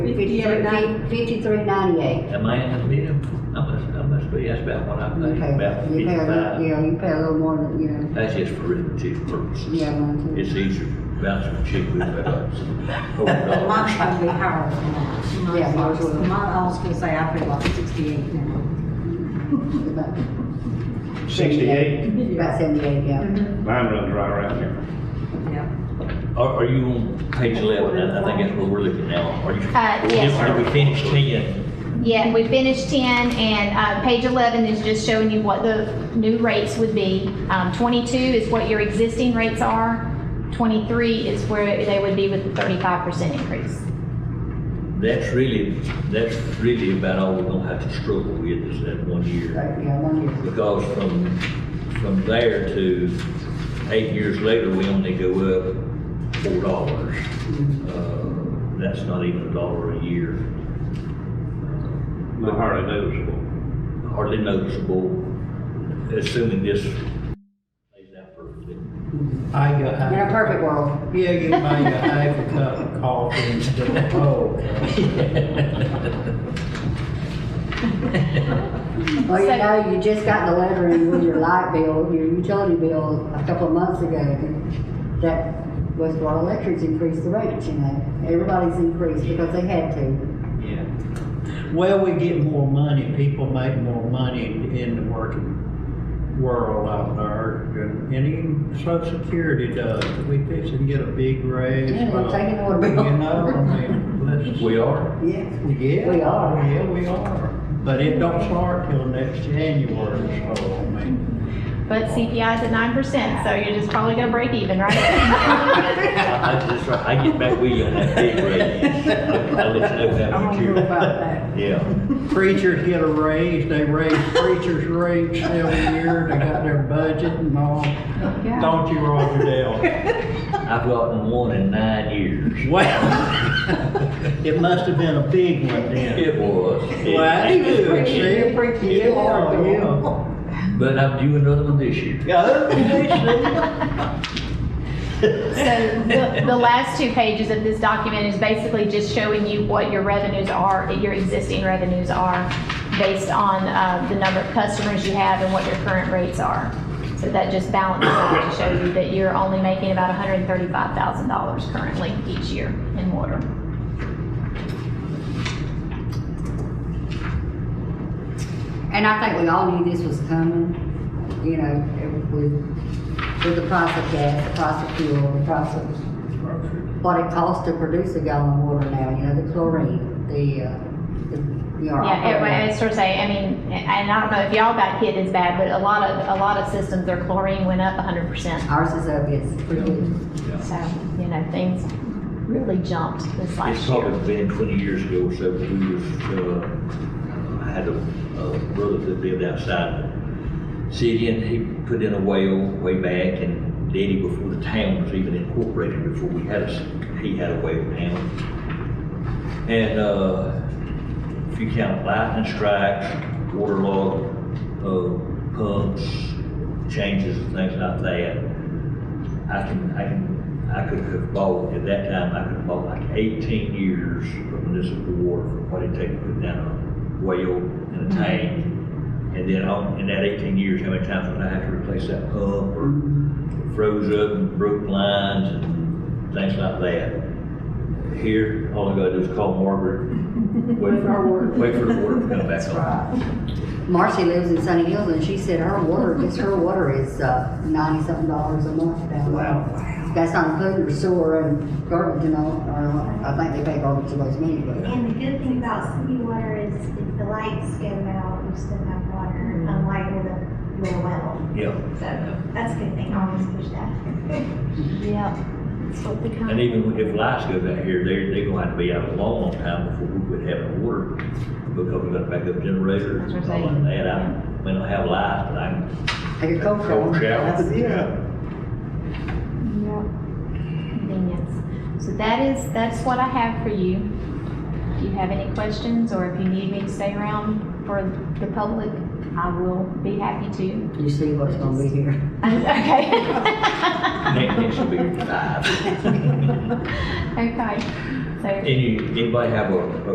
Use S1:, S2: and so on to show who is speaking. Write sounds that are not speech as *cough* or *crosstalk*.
S1: Fifty-three ninety, fifty-three ninety-eight.
S2: Am I in the bill? I must, I must be, that's about what I
S1: You
S2: think,
S1: pay,
S2: about
S1: you pay, a little-
S2: fifty-five.
S1: yeah, you pay a little more than, you know,
S2: That's just for arithmetic purposes.
S1: yeah, mine too.
S2: It's easier to bounce from chick with that.
S3: *laughs*
S4: Mine
S2: Hold
S4: probably higher than that.
S1: Yeah, mine's a little-
S4: Mine, I was gonna say, I pay about sixty-eight now.
S1: About-
S5: Sixty-eight,
S1: About seventy-eight, yeah.
S5: mine runs right around here.
S4: Yeah.
S2: on. Are, are you on page eleven? I I think that's what we're looking at. Are you?
S3: Uh, yes.
S2: Are we finished ten?
S3: Yeah, we finished 10, and uh, page 11 is just showing you what the new rates would be. Um, 22 is what your existing rates are. 23 is where they would be with the 35% increase.
S2: That's really, that's really about all we're gonna have to struggle with is that one year.
S1: Right, yeah, one year.
S2: Because from, from there to eight years later, we only go up four dollars. Uh, That's not even a dollar a year.
S5: Not hardly noticeable.
S2: Hardly noticeable, assuming this plays out perfectly.
S6: I got,
S1: In a
S6: I,
S1: perfect world,
S6: yeah, you made a half a cup of coffee and said, oh.
S1: well, you
S3: So-
S1: know, you just got the letter in with your light bill, your utility bill a couple of months ago. and That was what electrics increased the rates, you know, everybody's increased because they had to.
S6: Yeah. Well, we get more money, people make more money in- in the working world out there, and and even social security does, we fix and get a big raise.
S1: Yeah, they're
S6: from-
S1: taking our bill.
S6: You know, I mean,
S1: *laughs*
S6: let's.
S2: We are.
S1: Yeah.
S6: Yeah.
S1: We are.
S6: Yeah, we are, but it don't start till next January, so, I mean,
S3: But CPI is at 9%, so you're just probably going to break even, right?
S2: I, I, that's right, I get back with you on that big raise. I'll let you know
S4: I
S2: that
S4: don't
S2: for sure.
S4: know about that.
S2: Yeah.
S6: preachers get a raise, they raise preachers' rates every year, they got their budget and all.
S3: Yeah.
S6: Don't you, Roger Dale?
S2: I've gotten one in nine years.
S6: Well, *laughs* it must have been a big one then.
S2: It was.
S6: Well, I do, see?
S1: preaching, you are, you.
S2: But I'm due another one this year.
S6: Yeah, see?
S3: So the, the last two pages of this document is basically just showing you what your revenues are, your existing revenues are, based on uh, the number of customers you have and what your current rates are. So that just balances out to show you that you're only making about $135,000 currently each year in water.
S1: And I think we all knew this was coming, you know, with, with the price of gas, the price of fuel, the price of what it costs to produce a gallon of water now, you know, the chlorine, the, uh, the, you know.
S3: Yeah, it- well, it's sort of say, I mean, and I don't know if y'all got hit as bad, but a lot of, a lot of systems, their chlorine went up 100%.
S1: Ours is up, it's pretty good.
S3: So, you know, things really jumped this
S2: It's
S3: last year.
S2: probably been twenty years ago or so, we was, uh, I had a, a brother that lived outside the city and he put in a well way back and did it before the town was even incorporated, before we had a, s- he had a well now. And, uh, if you count lightning strikes, waterlogged, uh, pumps, changes and things like that, I can, I can, I could have bought, at that time, I could have bought like eighteen years of municipal water for what it takes to put down a well and a tank. And then on, in that eighteen years, how many times would I have to replace that pump or froze up and broke lines and things like that? Here, all I gotta do is call *laughs* Margaret, wait for, wait for the water to come back on.
S1: Marcy lives in Sunny Hills and she said her water, just her water is, uh, ninety-something dollars a month down there. Wow. That's not including her sewer and garbage and all, or, I think they pay garbage to those many, but.
S7: And the good thing about city water is if the lights go out, you still have water, unlike with a, with a well.
S2: Yeah.
S7: So that's a good thing, I always push that.
S3: Yeah. That's what the
S2: And
S3: company.
S2: even if lights goes out here, they're, they're gonna have to be out a long, long time before we quit having water, because we got backup generators and all of that, I may not have lights, but I can.
S1: Like a cold shower.
S2: Cold shower.
S1: That's-
S3: Convenience. So that is, that's what I have for you. If you have any questions or if you need me to stay around for the public, I will be happy to. *laughs*
S1: You see what's gonna be here.
S3: Okay.
S2: Next, next will be five.
S3: *laughs* Okay. So.
S2: Any, anybody have a, a